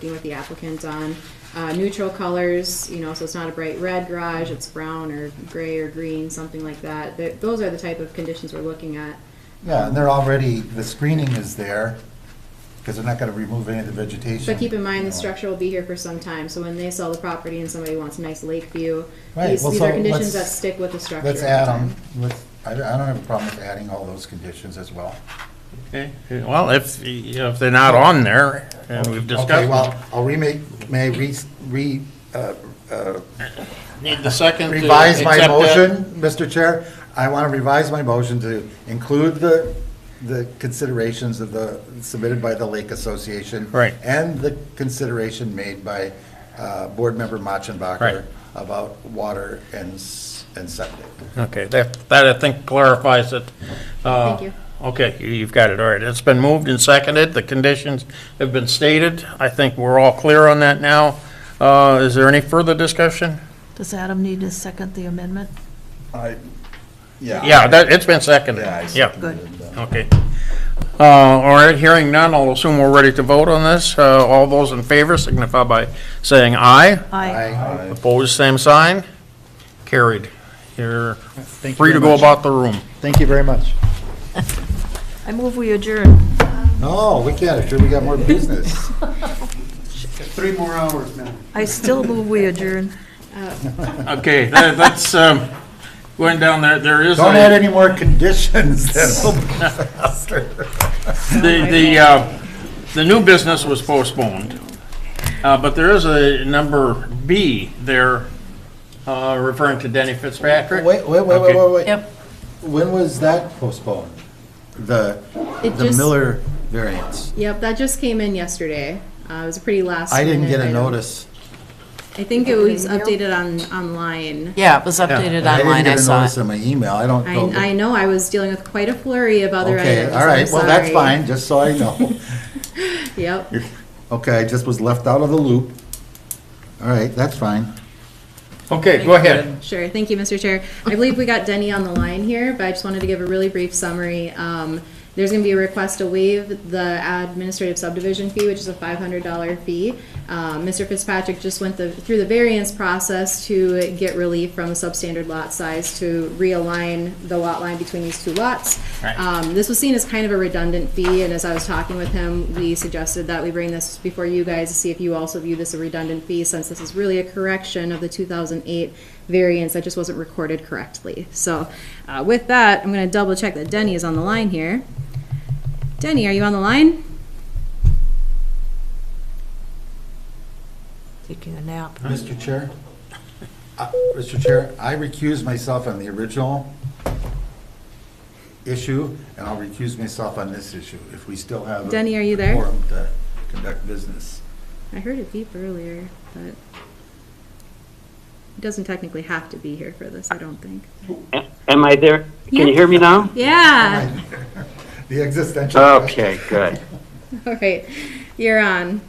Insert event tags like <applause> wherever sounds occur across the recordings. working with the applicant on uh, neutral colors, you know, so it's not a bright red garage, it's brown or gray or green, something like that. Th- Those are the type of conditions we're looking at. Yeah, and they're already, the screening is there, because they're not gonna remove any of the vegetation. But keep in mind, you the know. structure will be here for some time, so when they sell the property and somebody wants a nice lake view, Right, these well, these are so conditions that let's- stick with the structure. Let's at the add time. them, let's, I I don't have a problem with adding all those conditions as well. Okay, well, if, if they're not on there, and we've Okay, discussed, well, I'll remake, may I re, re, uh, uh, need the second to revise my accept that? motion, Mr. Chair? I wanna revise my motion to include the, the considerations of the, submitted by the Lake Association. Right. And the consideration made by, uh, Board Member Machenbacher. Right. About water and, s- and septic. Okay, that, that I think clarifies it. Uh, Thank you. Okay, you- you've got it, all right. It's been moved and seconded, the conditions have been stated. I think we're all clear on that now. Uh, Is there any further discussion? Does Adam need to second the amendment? I, Yeah, that, it's been seconded, Yeah, I yeah, seconded that. okay. Uh, All right, hearing none, I'll assume we're ready to vote on this. Uh, All those in favor signify by saying aye. Aye. Aye. Opposed, same sign. Carried. You're Thank you free very to go much. about the room. Thank you very much. I move we adjourn. No, we can't, sure, we got more business. Three more hours, man. I still move we adjourn. Okay, that- that's, um, going down there, there is Don't add a, any more conditions, then <laughs> we'll be faster. the, the, uh, the new business was postponed. Uh, but there is a number B there, uh, referring to Denny Fitzpatrick. Wait, wait, wait, wait, Okay. wait, wait. When was that postponed? The, It the just- Miller variance? Yep, that just came in yesterday. Uh, It was a pretty last. I didn't minute get a item. notice. I think it was updated on, online. Yeah, it was updated I online, I didn't get a saw notice it. in my email, I don't. I, know. I know I was dealing with quite a flurry of other Oh. Okay, items. all right, I'm well, that's sorry. fine, just so <laughs> I know. Yep. Okay, I just was left out of the loop. All right, that's fine. Okay, go ahead. Sure, thank you, Mr. Chair. I believe we got Denny on the line here, but I just wanted to give a really brief summary. Um, There's going to be a request to waive the administrative subdivision fee, which is a $500 fee. Um, Mr. Fitzpatrick just went the- through the variance process to get relief from substandard lot size to realign the lot line between these two lots. Right. Um, This was seen as kind of a redundant fee, and as I was talking with him, we suggested that we bring this before you guys to see if you also view this a redundant fee, since this is really a correction of the 2008 variance that just wasn't recorded correctly. So uh, with that, I'm going to double check that Denny is on the line here. Denny, are you on the line? Taking a nap. Mr. Chair? Uh, Mr. Chair, I recused myself on the original issue, and I'll recuse myself on this issue, if we still have. a Denny, are you there? quorum to conduct business. I heard it beep earlier, but he doesn't technically have to be here for this, I don't think. Am I there? Can Yeah. you hear me now? Yeah, <laughs> The existential. Okay, good. <laughs> all right, you're on.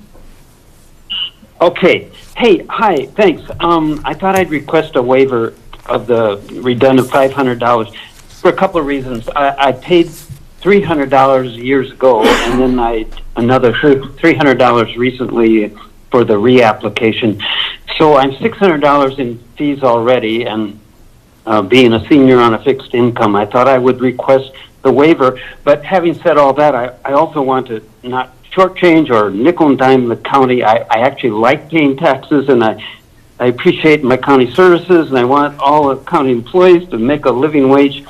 Okay. Hey, hi, thanks. Um, I thought I'd request a waiver of the redundant five hundred dollars for a couple of reasons. I, I paid three hundred dollars years ago, and then I another three hundred dollars recently for the reapplication. So I'm six hundred dollars in fees already, and uh, being a senior on a fixed income, I thought I would request the waiver. But having said all that, I, I also want to not shortchange or nickel and dime the county. I, I actually like paying taxes and I, I appreciate my county services and I want all the county employees to make a living wage.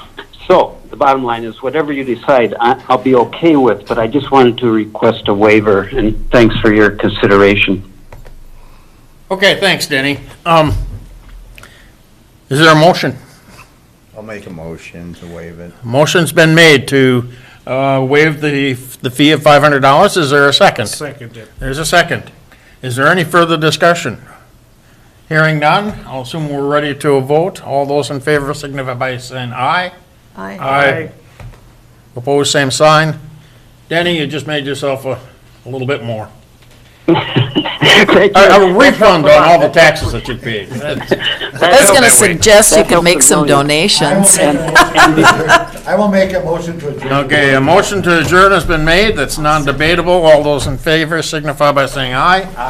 So the bottom line is whatever you decide, I, I'll be okay with, but I just wanted to request a waiver and thanks for your consideration. <laughs> Okay, thanks, Denny. Um, is there a motion? I'll make a motion to waive it. Motion's been made to uh, waive the, the fee of $500. Is there a second? Second. There's a second. Is there any further discussion? Hearing none, I'll assume we're ready to a vote. All those in favor signify by saying aye. Aye. Aye. Opposed, same sign. Denny, you just made yourself a, a little bit more. Thank you. A a refund on all the taxes that you paid. I was That's- gonna suggest you That could helps make a some million. donations. <laughs> I will make a motion to adjourn. Okay, a motion to adjourn has been made. That's non-debatable. All those in favor signify by saying aye.